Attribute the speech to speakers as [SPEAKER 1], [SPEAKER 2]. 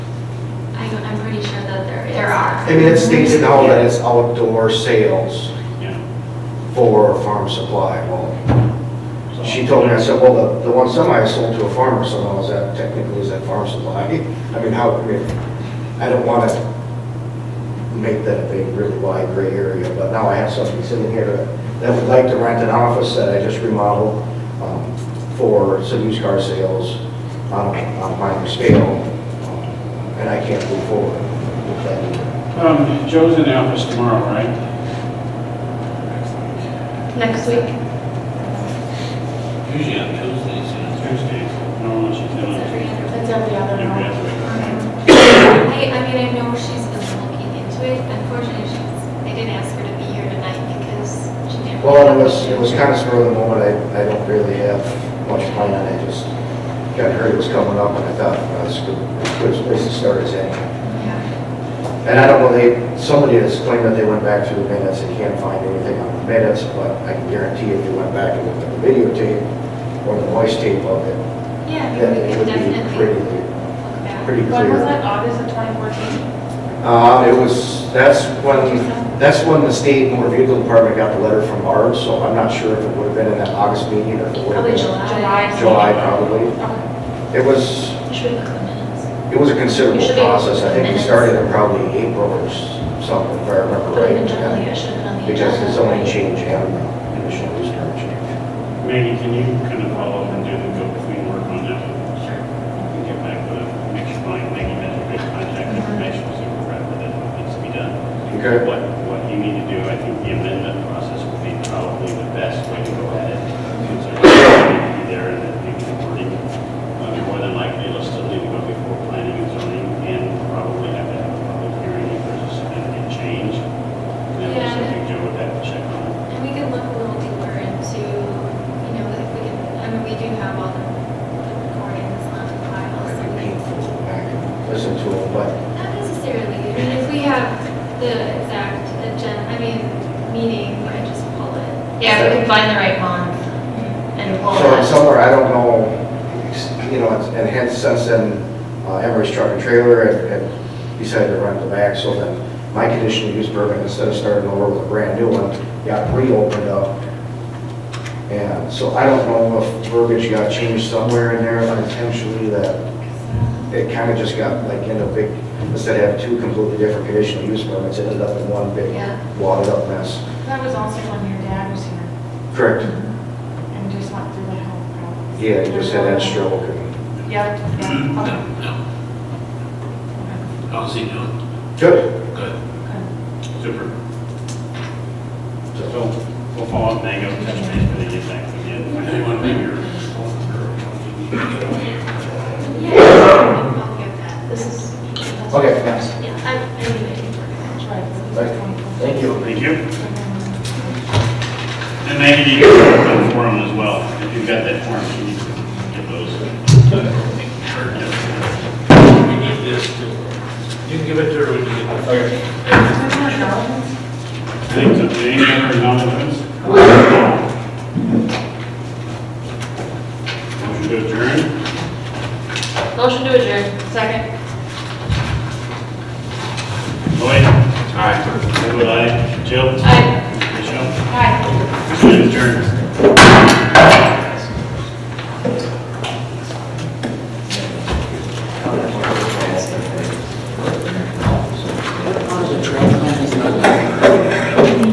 [SPEAKER 1] don't, I'm pretty sure that there is. There are.
[SPEAKER 2] I mean, it states now that it's outdoor sales
[SPEAKER 3] Yeah.
[SPEAKER 2] for farm supply. Well, she told me, I said, well, the, the one semi I sold to a farmer, so now is that technically, is that farm supply? I mean, how, I mean, I don't want to make that a big, really wide gray area, but now I have something sitting here that- that would like to rent an office that I just remodeled um, for some used car sales on, a- on a minor scale, um, and I can't move forward with that either.
[SPEAKER 3] Um, Joe's in the office tomorrow, right?
[SPEAKER 1] Next week.
[SPEAKER 4] Usually on Tuesdays, you know.
[SPEAKER 3] Tuesday. No, she's in.
[SPEAKER 1] It's every other
[SPEAKER 3] Every
[SPEAKER 1] one.
[SPEAKER 3] other one.
[SPEAKER 1] Mhm. I, I mean, I know she's been looking into it, unfortunately, she's, I didn't ask her to be here tonight because she didn't.
[SPEAKER 2] Well, it was, it was kind of spur of the moment, I, I don't really have much plan, I just got heard it was coming up, and I thought, well, that's good, good place to start is any.
[SPEAKER 1] Yeah.
[SPEAKER 2] And I don't know, they, somebody has claimed that they went back through the minutes, they can't find anything on the minutes, but I can guarantee if you went back and looked at the videotape or the voice tape of it,
[SPEAKER 1] Yeah, I
[SPEAKER 2] then
[SPEAKER 1] mean, we
[SPEAKER 2] it
[SPEAKER 1] could
[SPEAKER 2] would be pretty,
[SPEAKER 1] definitely look back.
[SPEAKER 2] pretty
[SPEAKER 5] When was that,
[SPEAKER 2] clear.
[SPEAKER 5] August of 2014?
[SPEAKER 2] Um, it was, that's when, that's when the state motor vehicle department got the letter from Barb, so I'm not sure if it would have been in that August meeting or if it would have
[SPEAKER 1] Probably
[SPEAKER 2] been.
[SPEAKER 1] July.
[SPEAKER 2] July, probably.
[SPEAKER 5] Okay.
[SPEAKER 2] It was,
[SPEAKER 1] You should look at the minutes.
[SPEAKER 2] it was a considerable
[SPEAKER 1] You should be-
[SPEAKER 2] process. I think we started in probably April or s- something, if I remember
[SPEAKER 1] But in July,
[SPEAKER 2] right.
[SPEAKER 1] it should have been on the
[SPEAKER 2] Because
[SPEAKER 1] agenda.
[SPEAKER 2] it's only change and conditional use permit change.
[SPEAKER 3] Maggie, can you kind of follow up and do the go-between work on that?
[SPEAKER 1] Sure.
[SPEAKER 3] You can get back with, it. make sure my Maggie mentioned make contact information, so we're right with it, what needs to be done.
[SPEAKER 2] Okay?
[SPEAKER 3] What, what you need to do, I think the amendment process would be probably the best way to go at it. Since there's already There and then maybe the wording, uh, more than likely, let's still need to go before planning and zoning and probably have to have a public hearing if there's a significant change. And then
[SPEAKER 1] Yeah.
[SPEAKER 3] something Joe would have to check on.
[SPEAKER 1] And we can look a little deeper into, you know, if we can, I mean, we do have all the the recordings on file,
[SPEAKER 2] It'd
[SPEAKER 1] so we
[SPEAKER 2] be
[SPEAKER 1] can
[SPEAKER 2] painful to go back and listen to it, but
[SPEAKER 1] Not necessarily. I mean, if we have the exact agenda, I mean, meeting, I just pull it.
[SPEAKER 6] Yeah, we can find the right month and pull
[SPEAKER 2] so
[SPEAKER 6] that.
[SPEAKER 2] it's somewhere, I don't know, it's- you know, it's- and hence since then, uh, Emery's truck and trailer had- had decided to rent the back, so then my conditional use permit, instead of starting over with a brand new one, got reopened up And so I don't know if verbiage got changed somewhere in there intentionally that it kind of just got like in a big, instead of having two completely different conditional use permits, it ended up in one big
[SPEAKER 1] Yeah.
[SPEAKER 2] wadded up mess.
[SPEAKER 5] That was also when your dad was here
[SPEAKER 2] Correct.
[SPEAKER 5] and just went through the whole process.
[SPEAKER 2] Yeah, you just had that stroke and.
[SPEAKER 5] Yep, yeah, okay.
[SPEAKER 4] No, no. How's he doing?
[SPEAKER 2] Good.
[SPEAKER 4] Good.
[SPEAKER 3] Super.
[SPEAKER 2] So,
[SPEAKER 3] So we'll follow up, Maggie, touch base, but get back to you.
[SPEAKER 4] Anyone leave your?
[SPEAKER 1] Yeah, I'll get that. This is.
[SPEAKER 2] Okay, yes.
[SPEAKER 1] Yeah, I, I mean, I can work on it.
[SPEAKER 2] Thank you.
[SPEAKER 3] Thank you. And Maggie, you can put up the forum as well. If you've got that forum, you need to get those.
[SPEAKER 4] We need this too. You can give it to her when you get the fire.
[SPEAKER 3] Things of the annual acknowledgements. Motion to adjourn.
[SPEAKER 6] Motion to adjourn. Second.
[SPEAKER 3] Lloyd? Aye. Would I? Jill?
[SPEAKER 6] Aye.
[SPEAKER 3] Michelle?
[SPEAKER 6] Aye.
[SPEAKER 3] Motion to adjourn.